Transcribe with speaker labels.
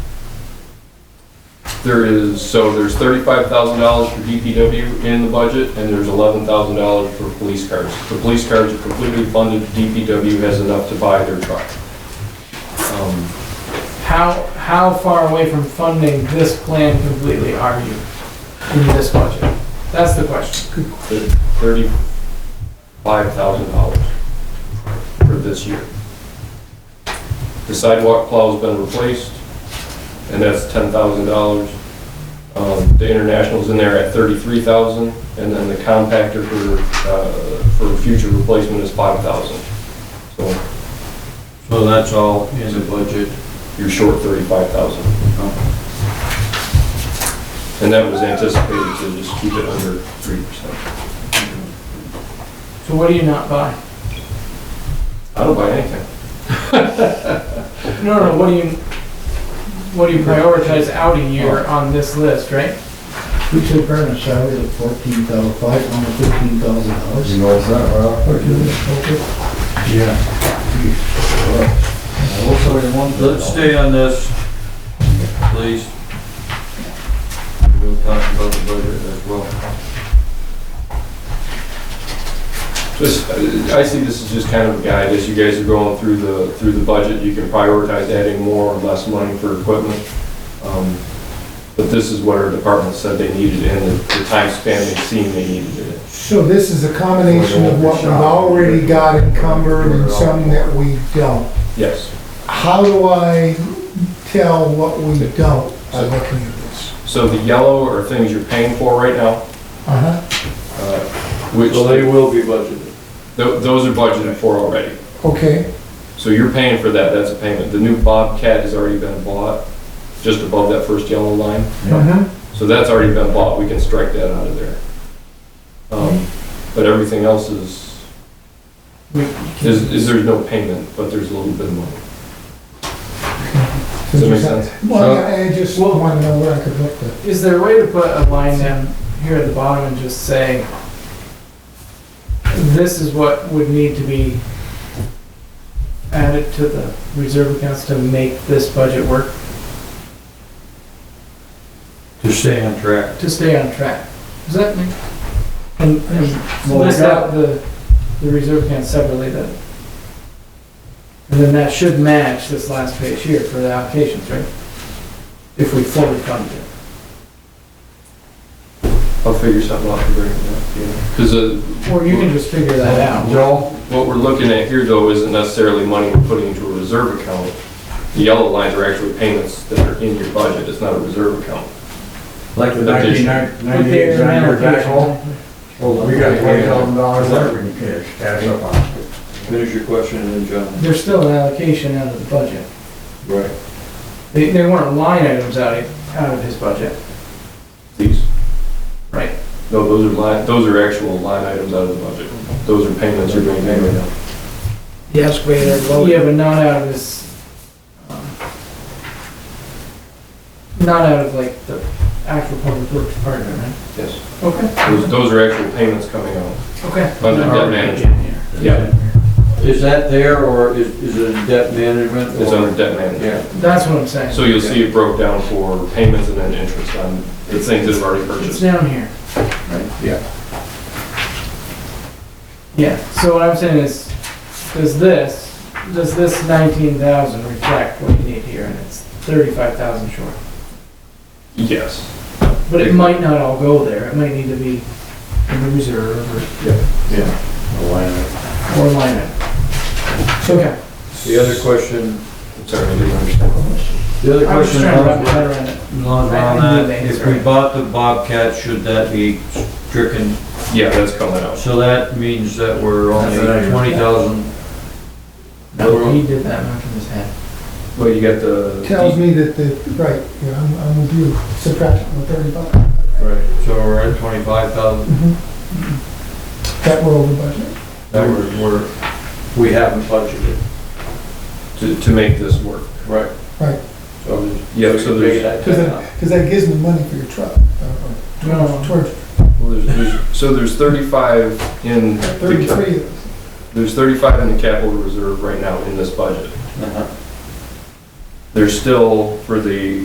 Speaker 1: There is, so there's thirty-five thousand dollars for DPW in the budget, and there's eleven thousand dollars for police cars. The police cars are completely funded, DPW has enough to buy their truck. Um,
Speaker 2: How, how far away from funding this plan completely are you in this budget? That's the question.
Speaker 1: thirty-five thousand dollars for this year. The sidewalk plow's been replaced, and that's ten thousand dollars. Um, the international's in there at thirty-three thousand, and then the compactor for, uh, for future replacement is five thousand. So
Speaker 3: So that's all in the budget.
Speaker 1: you're short thirty-five thousand. And that was anticipated to just keep it under three percent.
Speaker 2: So what do you not buy?
Speaker 1: I don't buy anything.
Speaker 2: No, no, what do you, what do you prioritize out a year on this list, right?
Speaker 4: We took her in a salary of fourteen thousand, five hundred fifteen thousand dollars.
Speaker 5: You know, it's not wrong.
Speaker 4: Yeah.
Speaker 5: Also, you want
Speaker 3: Let's
Speaker 5: that.
Speaker 3: stay on this, please. We'll talk about the budget as well.
Speaker 1: Just, uh, I I see this as just kind of a guide, as you guys are going through the, through the budget, you can prioritize adding more or less money for equipment. Um, But this is what our department said they needed and the the time span they seen they needed it.
Speaker 6: So this is a combination of what we've already got encumbered and some that we don't.
Speaker 1: Yes.
Speaker 6: How do I tell what we don't by looking at this?
Speaker 1: So the yellow are things you're paying for right now,
Speaker 6: Uh-huh,
Speaker 1: uh, which,
Speaker 3: So they will be budgeted.
Speaker 1: tho- those are budgeted for already.
Speaker 6: okay,
Speaker 1: So you're paying for that, that's a payment. The new Bobcat has already been bought, just above that first yellow line.
Speaker 6: uh-huh.
Speaker 1: So that's already been bought, we can strike that out of there. Um, But everything else is,
Speaker 2: We-
Speaker 1: is, is there's no payment, but there's a little bit of money. Does that make sense?
Speaker 6: Well, I I just want to know where I could look at.
Speaker 2: Is there a way to put a line down here at the bottom and just say, this is what would need to be added to the reserve accounts to make this budget work,
Speaker 3: To stay on track.
Speaker 2: to stay on track? Does that make? And, and
Speaker 3: Well, we
Speaker 2: list
Speaker 3: got-
Speaker 2: out the, the reserve accounts separately then? And then that should match this last page here for the allocations, right? If we fully fund it.
Speaker 1: I'll figure something out to bring it up, yeah. Because
Speaker 2: Or you can just figure that out.
Speaker 5: Joel,
Speaker 1: what we're looking at here, though, isn't necessarily money we're putting into a reserve account. The yellow lines are actually payments that are in your budget, it's not a reserve account.
Speaker 5: like the
Speaker 1: That is-
Speaker 5: nineteen ninety-eight Xander backhoe, well, we got twenty thousand dollars there in cash, cash up on.
Speaker 3: Finish your question and then John.
Speaker 2: There's still an allocation out of the budget.
Speaker 3: Right.
Speaker 2: They, they weren't line items out of, out of his budget.
Speaker 1: These,
Speaker 2: Right.
Speaker 1: no, those are line, those are actual line items out of the budget. Those are payments you're being paid right now.
Speaker 4: Yes, we had
Speaker 2: Yeah, but not out of his, um, not out of like the actual public works department, right?
Speaker 1: Yes.
Speaker 2: Okay,
Speaker 1: Those, those are actual payments coming out.
Speaker 2: okay.
Speaker 1: Under debt management. Yeah,
Speaker 3: Is that there or is, is it in debt management?
Speaker 1: it's
Speaker 3: or-
Speaker 1: under debt management.
Speaker 3: Yeah.
Speaker 2: That's what I'm saying.
Speaker 1: So you'll see it broke down for payments and then interest on the things that have already
Speaker 2: It's
Speaker 1: purchased.
Speaker 2: down here.
Speaker 3: Yeah.
Speaker 2: Yeah, so what I'm saying is, does this, does this nineteen thousand reflect what you need here, and it's thirty-five thousand short?
Speaker 1: Yes.
Speaker 2: But it might not all go there, it might need to be in the reserve or, or line item. Okay,
Speaker 3: The other question,
Speaker 1: I'm sorry, I didn't understand the question.
Speaker 3: the other
Speaker 2: I was
Speaker 3: question.
Speaker 2: just trying to wrap my head around it.
Speaker 3: Not
Speaker 2: I- I knew
Speaker 3: on
Speaker 2: the
Speaker 3: that, if
Speaker 2: answer.
Speaker 3: we bought the Bobcat, should that be stricken?
Speaker 1: Yeah, that's coming out.
Speaker 3: So that means that we're only
Speaker 5: That's right.
Speaker 3: twenty thousand.
Speaker 2: No, he did that much in his head.
Speaker 1: Well, you got the.
Speaker 6: Tells me that the, right, yeah, I'm, I'm with you, subtract the thirty-five,
Speaker 3: Right. So we're at twenty-five thousand,
Speaker 6: Mm-hmm. that we're over budget.
Speaker 3: that we're, we're, we haven't budgeted.
Speaker 1: To, to make this work.
Speaker 3: Right.
Speaker 6: Right.
Speaker 3: So there's.
Speaker 1: Yeah, so there's,
Speaker 6: Because that, because that gives me money for your truck. uh,
Speaker 2: No, no,
Speaker 6: or
Speaker 2: no.
Speaker 6: Towards
Speaker 1: well, there's, there's, so there's thirty-five in. the cap-
Speaker 6: thirty-three of those.
Speaker 1: There's thirty-five in the capital reserve right now in this budget.
Speaker 3: Uh-huh.
Speaker 1: There's still, for the